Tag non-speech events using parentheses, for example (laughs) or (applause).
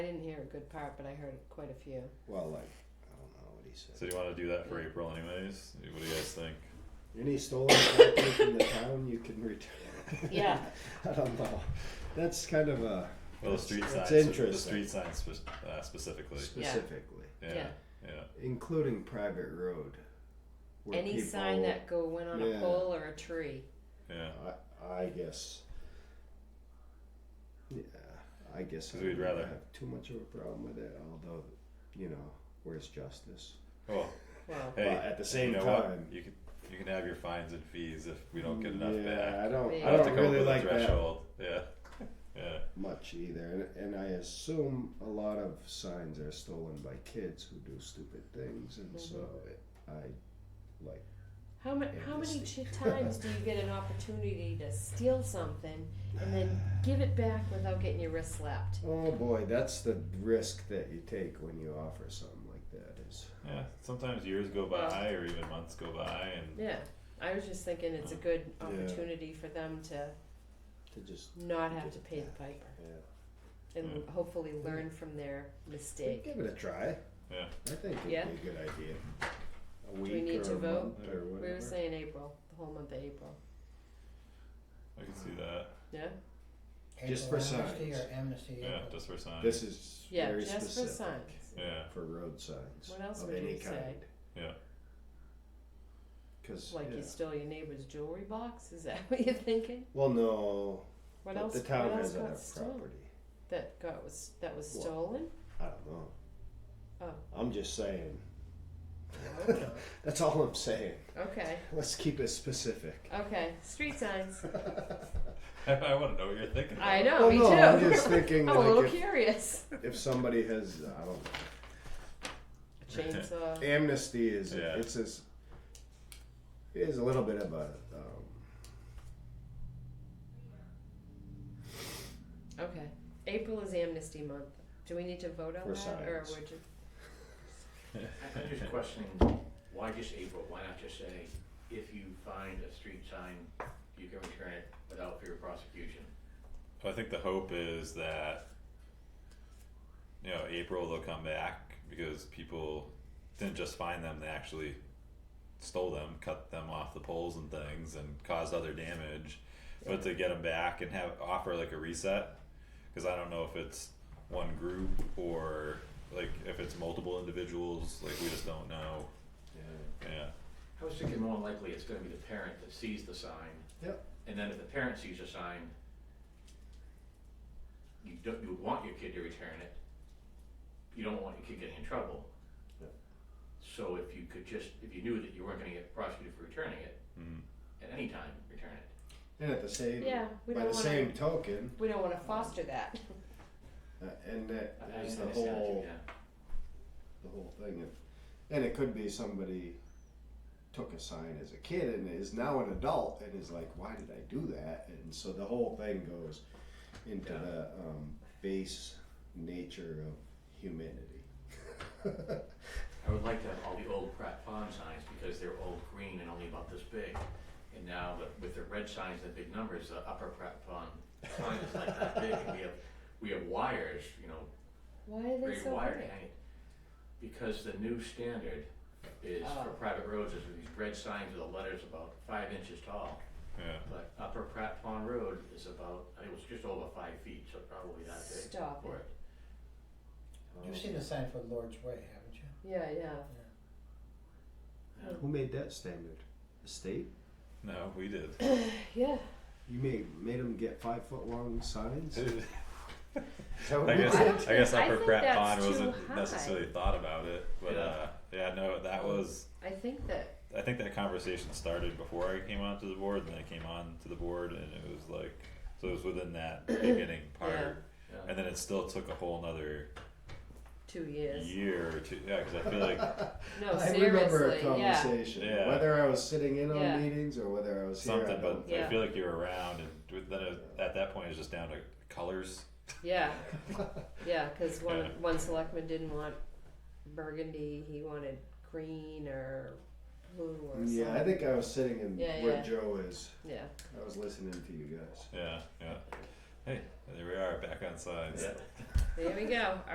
I didn't hear a good part, but I heard quite a few. Well, like, I don't know what he said. So do you want to do that for April, anyways? What do you guys think? Any stolen property from the town, you can return. Yeah. (laughs) I don't know. That's kind of a Well, the street That's- that's signs. The interesting. street signs spe- uh, specifically. specifically, Yeah. Yeah. yeah. including private road. where Any sign people- that go went on a Yeah. pole or a tree. Yeah, I, I guess. Yeah, I guess. I 'Cause we'd don't rather- have too much of a problem with it, although, you know, where's justice? Well, Well, hey, at the same you know time- what? you can you can have your fines and fees if we don't get enough yeah, back. I don't. Yeah. I We'll don't have to come up really with like a that threshold. Yeah, (laughs) yeah. much either, and, and I assume a lot of signs are stolen by kids who do stupid things, and so Mm-hmm. it, I like. how, ma- how many ch- times do you get an opportunity to steal something and then give it back without getting your wrist slapped? Oh boy, that's the risk that you take when you offer something like that. Is Yeah, sometimes years go by or even months go by and Yeah. I was just thinking it's a good Yeah. opportunity for them to to just not have to pay the piper yeah, Mm. and Yeah. hopefully learn from their mistake. give it a try. Yeah. I think it'd Yeah. be a good idea. A week we need or to a vote? month or We were whatever. saying April, the whole month of April. I can see that. Yeah? Just for April amnesty signs. or amnesty. Yeah, April. just for signs. This is Yeah, very just specific for signs. yeah, (laughs) for road signs What else of would any you kind. say? Yeah. Because Like yeah. you stole your neighbor's jewelry box? Is that (laughs) what you're thinking? well, no, What but else? the town what else has got enough stolen? property. That got was that was What? stolen. I don't know. Oh. I'm just saying. Okay. (laughs) That's all I'm saying. okay, Let's keep (laughs) it specific. okay. Street (laughs) signs. I, want to know what you're thinking. About. I know. Well, Oh, me Oh, no, too. (laughs) I'm just thinking I'm a like little (laughs) if- curious. If somebody has, I don't A know, chainsaw. amnesty is Yeah. it's as it is a little bit of a um, Okay. April is Amnesty Month. Do we need to vote on For that, or signs. we're just I'm just questioning, why just April, why not just say, if you find a street sign, you can return it without fear of prosecution? I think the hope is that you know April they'll come back because people didn't just find them; they actually stole them, cut them off the poles and things, and caused other damage. But to get them back and have offer like a reset, because I don't know if it's one group or like if it's multiple individuals. Like we just don't know. Yeah. I was thinking more likely it's gonna be the parent that sees the sign. Yep. And then if the parent sees a sign, you don't, you want your kid to return it. You don't want your kid getting in trouble. Yep. So if you could just, if you knew that you weren't gonna get prosecuted for returning it, Mm. at any time, return it. and at the same yeah? We by don't the want same token, we don't want to foster (laughs) that. uh, and that I- I is the understand that too, whole yeah. the whole thing. If, and it could be somebody took a sign as a kid and is now an adult and is like, why did I do that? And so the whole thing goes into Yeah. the um, base nature of humanity. I would like to have all the old Pratt Pond signs because they're all green and only about this big. And now the- with the red signs and big numbers, the upper Pratt Pond sign is like that big. And we have, we have wires, you know, Why are they great so wire big? hanging. Because the new standard is for Oh. private roads is with these red signs with the letters about five inches tall. Yeah. But upper Pratt Pond Road is about, I think it was just over five feet, so probably that big. Stop for it. You've seen the sign for Lord's Way, haven't you? Yeah, yeah. (laughs) Yeah. Who made that standard? The state? No, we did. Yeah. You made made them get five foot long (laughs) signs. Is that what I we guess I did? don't I guess think- I Upper think Pratt that's Pond too wasn't high. necessarily thought about it, but Yeah. uh, yeah, no, that was. I think that I think that conversation started before I came onto the board, and then I came on to the board, and it was like, so it was (clears throat) within that beginning part, Yeah. and then it still took a whole another two years. year or two. Yeah, because I (laughs) (laughs) feel like No, I seriously. remember a yeah. conversation. Yeah. Whether I was sitting in on Yeah. meetings or whether I was here. I something, don't- but Yeah. I feel like you're around, and with- then it, at that point, it's just down to colors. Yeah, yeah, because one one selectman didn't want burgundy; he wanted green or blue or something. (laughs) yeah, I think I was sitting in Yeah, where yeah. Joe is. Yeah, I was listening to you guys. Yeah, yeah. Hey, there we are, back on sides. Yeah. there we go.